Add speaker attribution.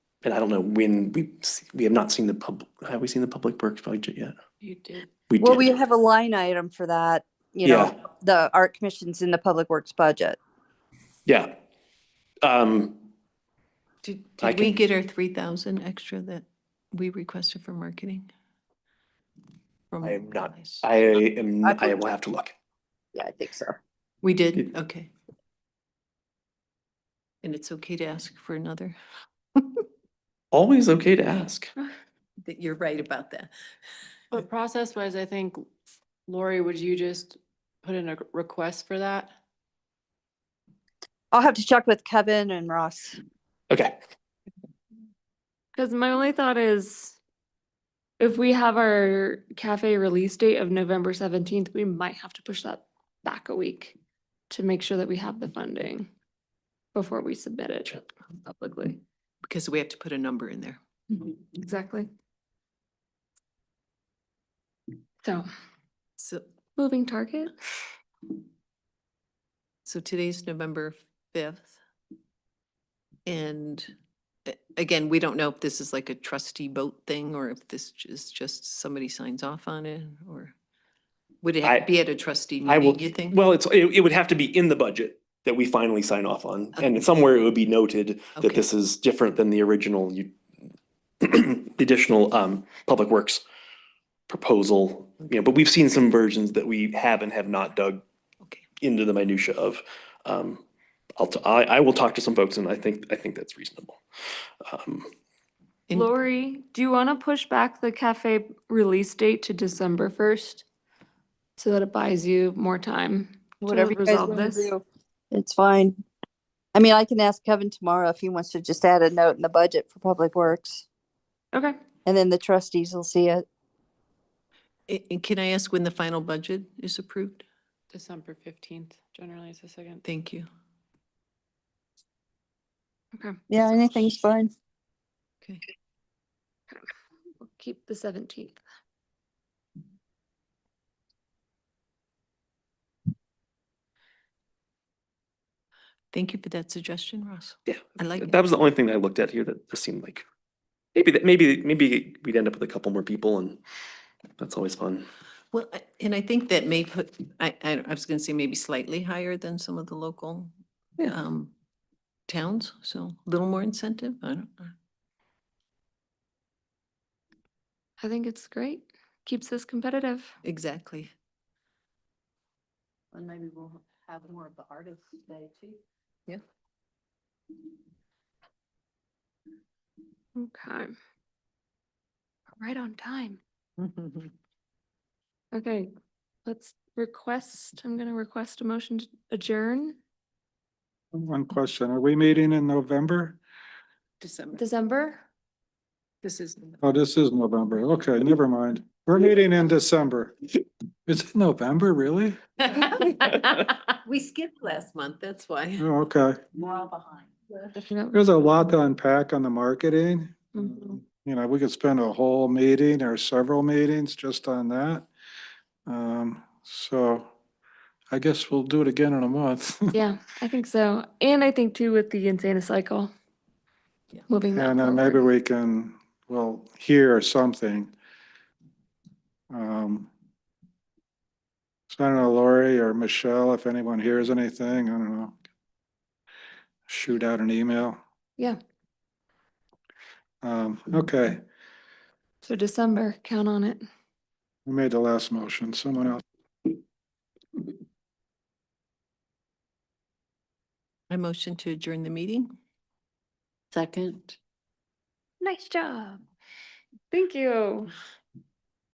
Speaker 1: And I don't know when we, s- we have not seen the public, have we seen the public works budget yet?
Speaker 2: You did.
Speaker 1: We
Speaker 3: Well, we
Speaker 1: did.
Speaker 3: have a line item for that, you know, the art commissions in the public works budget.
Speaker 1: Yeah. Um,
Speaker 2: Did,
Speaker 1: I
Speaker 2: did we
Speaker 1: can-
Speaker 2: get our three thousand extra that we requested for marketing? From
Speaker 1: I am not-
Speaker 2: Allies?
Speaker 1: I am,
Speaker 3: I
Speaker 1: I
Speaker 3: believe-
Speaker 1: will have to look.
Speaker 3: Yeah, I think so.
Speaker 2: We did,
Speaker 1: It-
Speaker 2: okay. And it's okay to ask for another?
Speaker 1: Always okay to ask.
Speaker 2: That you're right about that.
Speaker 4: But process wise, I think, Lori, would you just put in a request for that?
Speaker 3: I'll have to check with Kevin and Ross.
Speaker 1: Okay.
Speaker 5: Because my only thought is if we have our cafe release date of November seventeenth, we might have to push that back a week to make sure that we have the funding before we submit it publicly.
Speaker 2: Because we have to put a number in there.
Speaker 5: Mm-hmm. Exactly. So,
Speaker 2: So,
Speaker 5: moving target?
Speaker 2: so today's November fifth. And a- again, we don't know if this is like a trustee vote thing or if this j- is just somebody signs off on it or would it have
Speaker 1: I-
Speaker 2: to be at a trustee
Speaker 1: I will,
Speaker 2: meeting, you think?
Speaker 1: well, it's, it, it would have to be in the budget that we finally sign off on. And somewhere it would be noted that
Speaker 2: Okay.
Speaker 1: this is different than the original, you, additional, um, public works proposal, you know, but we've seen some versions that we have and have not dug
Speaker 2: Okay.
Speaker 1: into the minutia of. Um, I'll, t- I, I will talk to some folks and I think, I think that's reasonable. Um,
Speaker 2: And-
Speaker 5: Lori, do you want to push back the cafe release date to December first? So that it buys you more time to
Speaker 3: Whatever you guys
Speaker 5: resolve
Speaker 3: want to
Speaker 5: this?
Speaker 3: do. It's fine. I mean, I can ask Kevin tomorrow if he wants to just add a note in the budget for public works
Speaker 5: Okay.
Speaker 3: and then the trustees will see it.
Speaker 2: a- And can I ask when the final budget is approved?
Speaker 4: December fifteenth generally is the second.
Speaker 2: Thank you.
Speaker 5: Okay,
Speaker 3: Yeah, anything's fine.
Speaker 2: Okay.
Speaker 5: we'll keep the seventeenth.
Speaker 2: Thank you for that suggestion, Ross.
Speaker 1: Yeah,
Speaker 2: I like it.
Speaker 1: that was the only thing I looked at here that just seemed like, maybe, that maybe, maybe we'd end up with a couple more people and that's always fun.
Speaker 2: Well, I- and I think that may put, I, I I was gonna say maybe slightly higher than some of the local
Speaker 1: Yeah.
Speaker 2: um, towns, so a little more incentive. I don't know.
Speaker 5: I think it's great. Keeps us competitive.
Speaker 2: Exactly.
Speaker 4: And maybe we'll have more of the artists today too.
Speaker 5: Okay. Right on time. Okay, let's request, I'm gonna request a motion to adjourn
Speaker 6: One question, are we meeting in November?
Speaker 2: December.
Speaker 5: December.
Speaker 2: This is.
Speaker 6: Oh, this is November. Okay, never mind. We're meeting in December. Is it November, really?
Speaker 2: We skipped last month, that's why.
Speaker 6: Oh, okay.
Speaker 4: More behind.
Speaker 6: There's a lot to unpack on the marketing.
Speaker 5: Mhm.
Speaker 6: You know, we could spend a whole meeting or several meetings just on that. Um, so I guess we'll do it again in a month.
Speaker 5: Yeah, I think so. And I think too with the Insana cycle.
Speaker 2: Yeah.
Speaker 5: Moving that
Speaker 6: And then maybe
Speaker 5: forward.
Speaker 6: we can, well, hear something. Um. So I don't know, Lori or Michelle, if anyone hears anything, I don't know. Shoot out an email.
Speaker 5: Yeah,
Speaker 6: Um, okay,
Speaker 5: so December, count on it.
Speaker 6: we made the last motion. Someone else,
Speaker 2: I motion to adjourn the meeting.
Speaker 4: Second.
Speaker 5: Nice job. Thank you.